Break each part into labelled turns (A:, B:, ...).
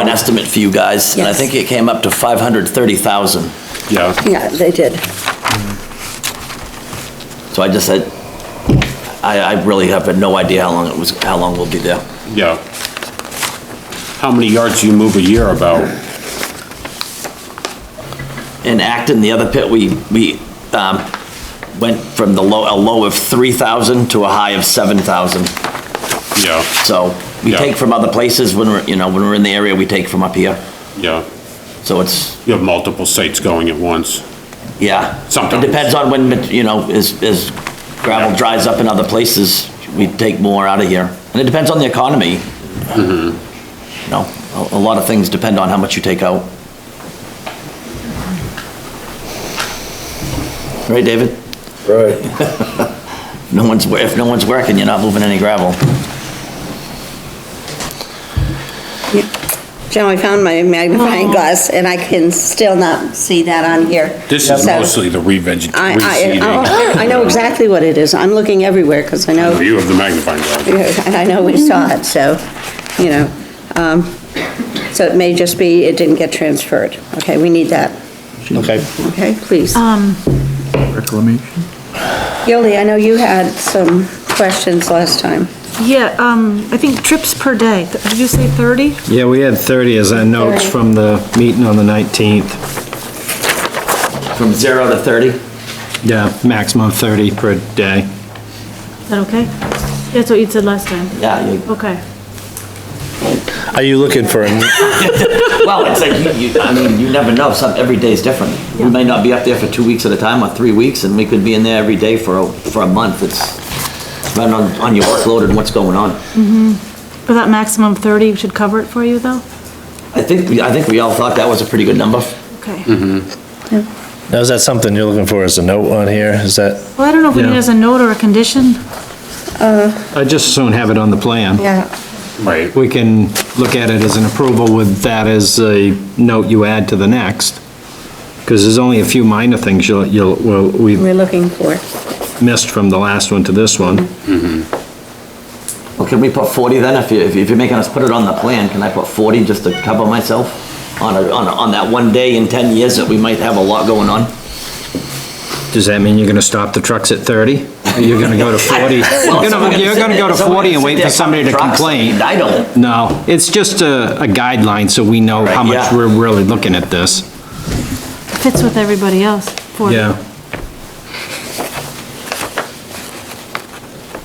A: an estimate for you guys, and I
B: Yes.
A: think it came up to 530,000.
C: Yeah,
B: Yeah, they did.
A: So I just said, I, I really have no idea how long it was, how long we'll be there.
C: yeah. How many yards do you move a year about?
A: In Acton, the other pit, we, we, um, went from the low, a low of 3,000 to a high of 7,000.
C: Yeah,
A: So we
C: Yeah.
A: take from other places when we're, you know, when we're in the area, we take from up here.
C: yeah.
A: So it's,
C: You have multiple sites going at once.
A: yeah.
C: Sometimes.
A: It depends on when, you know, as, as gravel dries up in other places, we take more out of here. And it depends on the economy. You know, a, a lot of things depend on how much you take out. Right, David?
D: Right.
A: No one's, wo- if no one's working, you're not moving any gravel.
B: Jim, I found my magnifying glass and I can still not see that on here.
C: This is
B: So,
C: mostly the revegetation.
B: I, I, oh, I know exactly what it is. I'm looking everywhere because I know,
C: You have the magnifying glass.
B: and I know we saw it, so, you know. um, So it may just be it didn't get transferred. Okay, we need that.
D: Okay.
B: Okay, please.
E: Reclamation?
B: Yoli, I know you had some questions last time.
F: Yeah, um, I think trips per day, Th- did you say 30?
G: Yeah, we had 30 as our notes
B: 30.
G: from the meeting on the 19th.
A: From zero to 30?
G: Yeah, maximum 30 per day.
F: Is that okay? That's what you said last time.
A: Yeah, you-
F: Okay.
D: Are you looking for, a
A: Well, it's like, you, you, I mean, you never know, some, every day's different. We may not be up there for two weeks at a time, or three weeks, and we could be in there every day for, a for a month, it's, depending on, on your workload and what's going on.
F: But that maximum 30 should cover it for you, though?
A: I think, we- I think we all thought that was a pretty good number.
F: Okay.
G: Mm-hmm.
D: now is that something you're looking for as a note on here? Is that?
F: Well, I don't know if we need it
G: Yeah.
F: as a note or a condition.
G: I just soon have it on the plan.
B: Yeah.
C: Right,
G: We can look at it as an approval with that as a note you add to the next, because there's only a few minor things you'll, you'll, well, we
B: We're looking for.
G: missed from the last one to this one.
A: Well, can we put forty then, if you, if you- if you're making us put it on the plan, can I put forty just to cover myself? On a, on, a- on that one day in ten years that we might have a lot going on?
G: Does that mean you're gonna stop the trucks at 30? Or You're gonna go to 40? You're gonna you're gonna go to 40 and wait for somebody to complain?
A: I don't.
G: No, it's just a, a guideline, so we know how
A: Right,
G: much
A: yeah.
G: we're really looking at this.
F: Fits with everybody else. 40.
G: Yeah.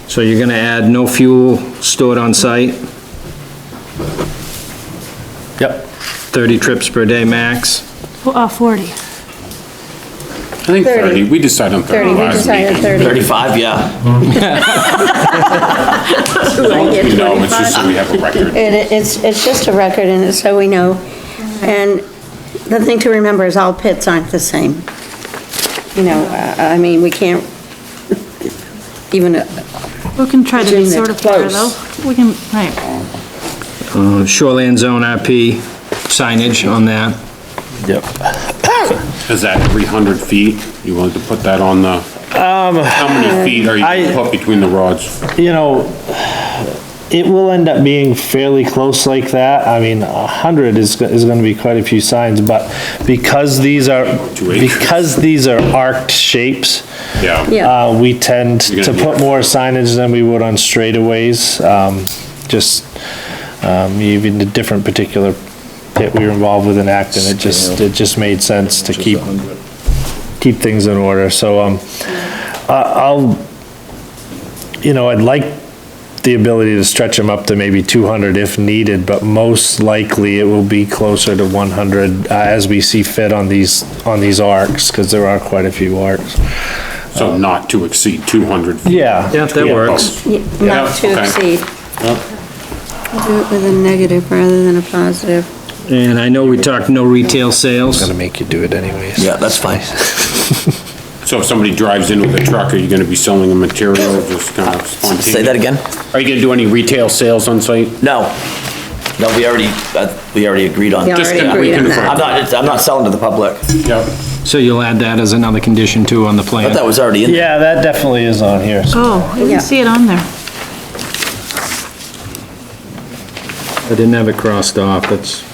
G: So you're gonna add no fuel stored on site,
D: Yep.
G: 30 trips per day max?
F: Fo- Uh, 40.
C: I think
B: 30.
C: 30, we decided on 30
B: 30, we
C: last
B: decided
C: meeting.
B: 30.
A: Thirty-five, yeah.
C: You know, it's just so we have a record.
B: It, it's, it's just a record, and it's so we know. And the thing to remember is all pits aren't the same. You know, uh, I mean, we can't even, uh,
F: We can try to be
B: Jim, they're
F: sort of fair,
B: close.
F: though. We can, right.
G: Uh, Shoreland zone IP signage on that?
D: Yep.
C: Is that every 100 feet? You willing to put that on the, how many feet are you
D: I-
C: gonna put between the rods?
D: You know, it will end up being fairly close like that. I mean, a hundred is, go- is gonna be quite a few signs, but because these are,
C: Two acres.
D: because these are arced shapes,
C: Yeah,
B: Yeah.
D: uh, we tend
C: You're
D: to
C: gonna
D: put
C: need-
D: more signage than we would on straightaways. Um, just, um, even the different particular pit we were involved with in Acton, it just, it just made sense to keep, keep things in order. So, um, I- I'll, you know, I'd like the ability to stretch them up to maybe 200 if needed, but most likely it will be closer to 100 uh, as we see fit on these, on these arcs, because there are quite a few arcs.
C: so not to exceed 200. feet.
D: Yeah.
G: Yeah, that works.
C: Oh,
B: not to
C: okay.
B: exceed.
C: Yep.
B: We'll Do it with a negative rather than a positive.
G: And I know we talked no retail sales.
D: Gonna make you do it anyways.
A: Yeah, that's fine.
C: So if somebody drives in with a truck, are you gonna be selling a material just kind of spontaneous?
A: Say that again?
C: Are you gonna do any retail sales on site?
A: No. No, we already, uh, we already agreed on.
B: Yeah,
C: Just
B: already
C: gonna
B: agreed on
C: reconfirm.
B: that.
A: I'm not, it's- I'm not selling to the public.
C: Yep.
G: So you'll add that as another condition too on the
A: I thought
G: plan?
A: that was already in there.
D: Yeah, that definitely is on here. so-
F: Oh, I
B: Yeah.
F: didn't see it on there.
G: I didn't have it crossed off, that's,